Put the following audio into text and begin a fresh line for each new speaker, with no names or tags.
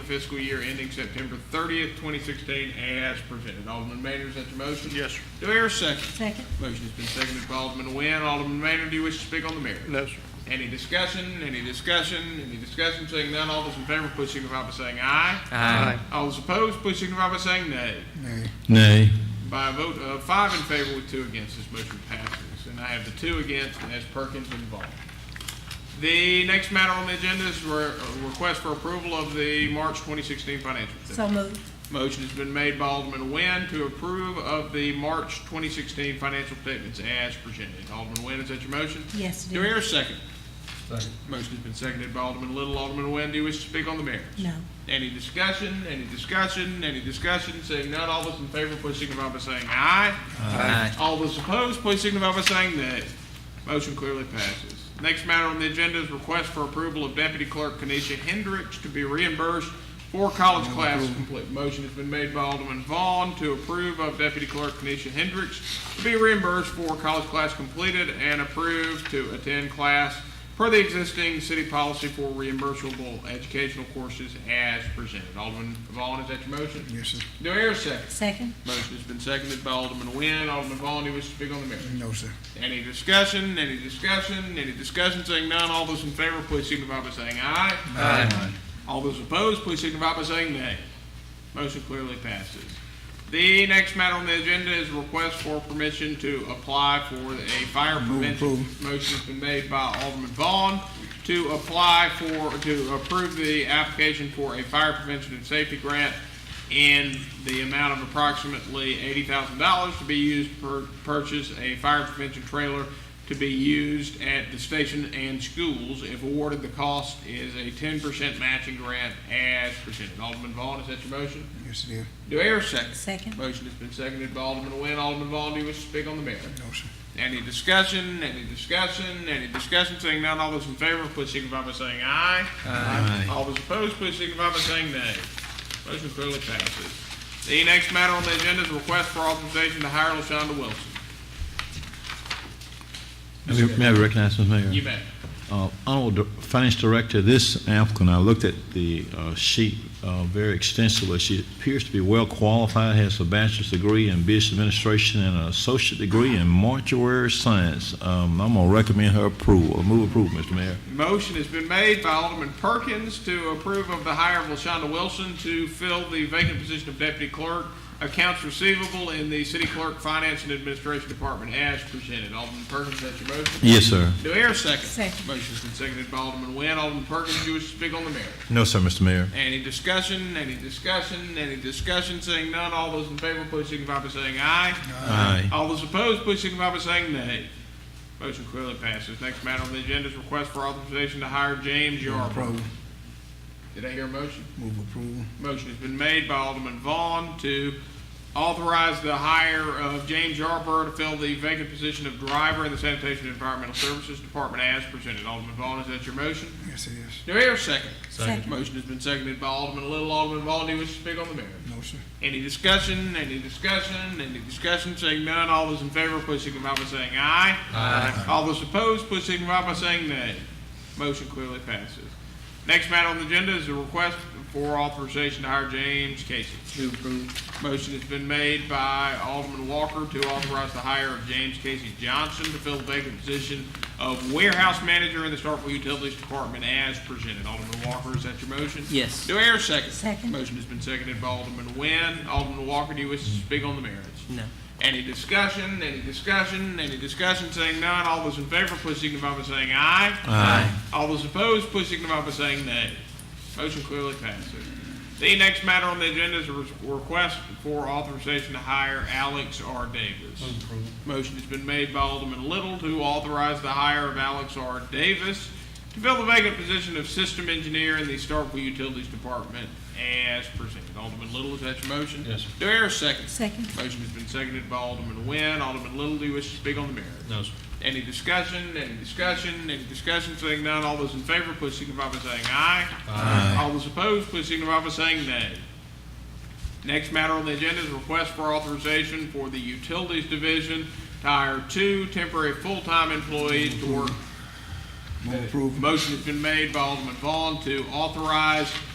fiscal year ending September thirtieth, twenty sixteen, as presented. Alderman Maynard, is that your motion?
Yes, sir.
Do I hear a second?
second,
Motion has been seconded by Alderman Nguyen. Alderman Maynard, do you wish to speak on the merits?
No, sir.
Any discussion, any discussion, any discussion, seeing none, all those in favor, please signify by saying aye.
Aye.
All those opposed, please signify by saying nay.
Nay.
By a vote of five in favor with two against, this motion passes. And I have the two against, and that's Perkins and Vaughn. The next matter on the agenda is re- a request for approval of the March 2016 financial statement.
so moved,
Motion has been made by Alderman Nguyen to approve of the March 2016 financial statements as presented. Alderman Nguyen, is that your motion?
yes, it
Do I
is.
hear a second? Motion has been seconded by Alderman Little. Alderman Nguyen, do you wish to speak on the merits?
No,
Any discussion, any discussion, any discussion, seeing none, all those in favor, please signify by saying aye.
Aye.
All those opposed, please signify by saying nay. Motion clearly passes. Next matter on the agenda is request for approval of Deputy Clerk Kenesha Hendricks to be reimbursed for college class complete. Motion has been made by Alderman Vaughn to approve of Deputy Clerk Kenesha Hendricks to be reimbursed for college class completed and approved to attend class per the existing city policy for reimbursable educational courses as presented. Alderman Vaughn, is that your motion?
Yes, sir.
Do I hear a second?
second,
Motion has been seconded by Alderman Nguyen. Alderman Vaughn, do you wish to speak on the matter?
No, sir.
Any discussion, any discussion, any discussion, saying none, all those in favor, please signify by saying aye.
Aye.
All those opposed, please signify by saying nay. Motion clearly passes. The next matter on the agenda is request for permission to apply for a fire
Move
prevention.
approval.
Motion has been made by Alderman Vaughn to apply for, to approve the application for a fire prevention and safety grant in the amount of approximately eighty thousand dollars to be used for purchase a fire prevention trailer to be used at the station and schools. If awarded, the cost is a ten percent matching grant as presented. Alderman Vaughn, is that your motion?
Yes, it is.
Do I hear a second?
second,
Motion has been seconded by Alderman Nguyen. Alderman Vaughn, do you wish to speak on the matter?
No, sir.
Any discussion, any discussion, any discussion, seeing none, all those in favor, please signify by saying aye.
Aye.
All those opposed, please signify by saying nay. Motion clearly passes. The next matter on the agenda is a request for authorization to hire LaShonda Wilson.
May I- may I recognize, Mr. Mayor?
You may.
Uh, Honorable Dir- Finance Director, this applicant, I looked at the uh, sheet uh, very extensively. She appears to be well qualified, has a bachelor's degree in business administration and an associate degree in mortuary science. Um, I'm going to recommend her approval. Move approval, Mr. Mayor.
Motion has been made by Alderman Perkins to approve of the hire of LaShonda Wilson to fill the vacant position of Deputy Clerk, Accounts Receivable in the City Clerk Finance and Administration Department as presented. Alderman Perkins, that's your motion?
Yes, sir.
Do I hear a second?
Second.
Motion's been seconded by Alderman Nguyen. Alderman Perkins, you wish to speak on the matter?
No, sir, Mr. Mayor.
Any discussion, any discussion, any discussion, seeing none, all those in favor, please signify by saying aye.
Aye.
All those opposed, please signify by saying nay. Motion clearly passes. Next matter on the agenda is request for authorization to hire James Yarbrough.
Approval.
Did I hear a motion?
Move approval.
Motion has been made by Alderman Vaughn to authorize the hire of James Yarbrough to fill the vacant position of driver in the Sanitation and Environmental Services Department as presented. Alderman Vaughn, is that your motion?
Yes, it is.
Do I hear a second?
Second.
Motion has been seconded by Alderman Little. Alderman Vaughn, do you wish to speak on the matter?
No, sir.
Any discussion, any discussion, any discussion, seeing none, all those in favor, please signify by saying aye. Aye. All those opposed, please signify by saying nay. Motion clearly passes. Next matter on the agenda is a request for authorization to hire James Casey. Motion has been made by Alderman Walker to authorize the hire of James Casey Johnson to fill the vacant position of warehouse manager in the Starkville Utilities Department as presented. Alderman Walker, is that your motion?
Yes.
Do I hear a second?
Second.
Motion has been seconded by Alderman Nguyen. Alderman Walker, do you wish to speak on the merits?
No.
Any discussion, any discussion, any discussion, saying none, all those in favor, please signify by saying aye.
Aye.
All those opposed, please signify by saying nay. Motion clearly passes. The next matter on the agenda is a re- request for authorization to hire Alex R. Davis. Motion has been made by Alderman Little to authorize the hire of Alex R. Davis to fill the vacant position of system engineer in the Starkville Utilities Department as presented. Alderman Little, is that your motion?
Yes, sir.
Do I hear a second?
second,
Motion has been seconded by Alderman Nguyen. Alderman Little, do you wish to speak on the merits?
No, sir.
Any discussion, any discussion, any discussion, saying none, all those in favor, please signify by saying aye. Aye. All those opposed, please signify by saying nay. Next matter on the agenda is request for authorization for the Utilities Division to hire two temporary full-time employees to work.
Move approval.
Motion has been made by Alderman Vaughn to authorize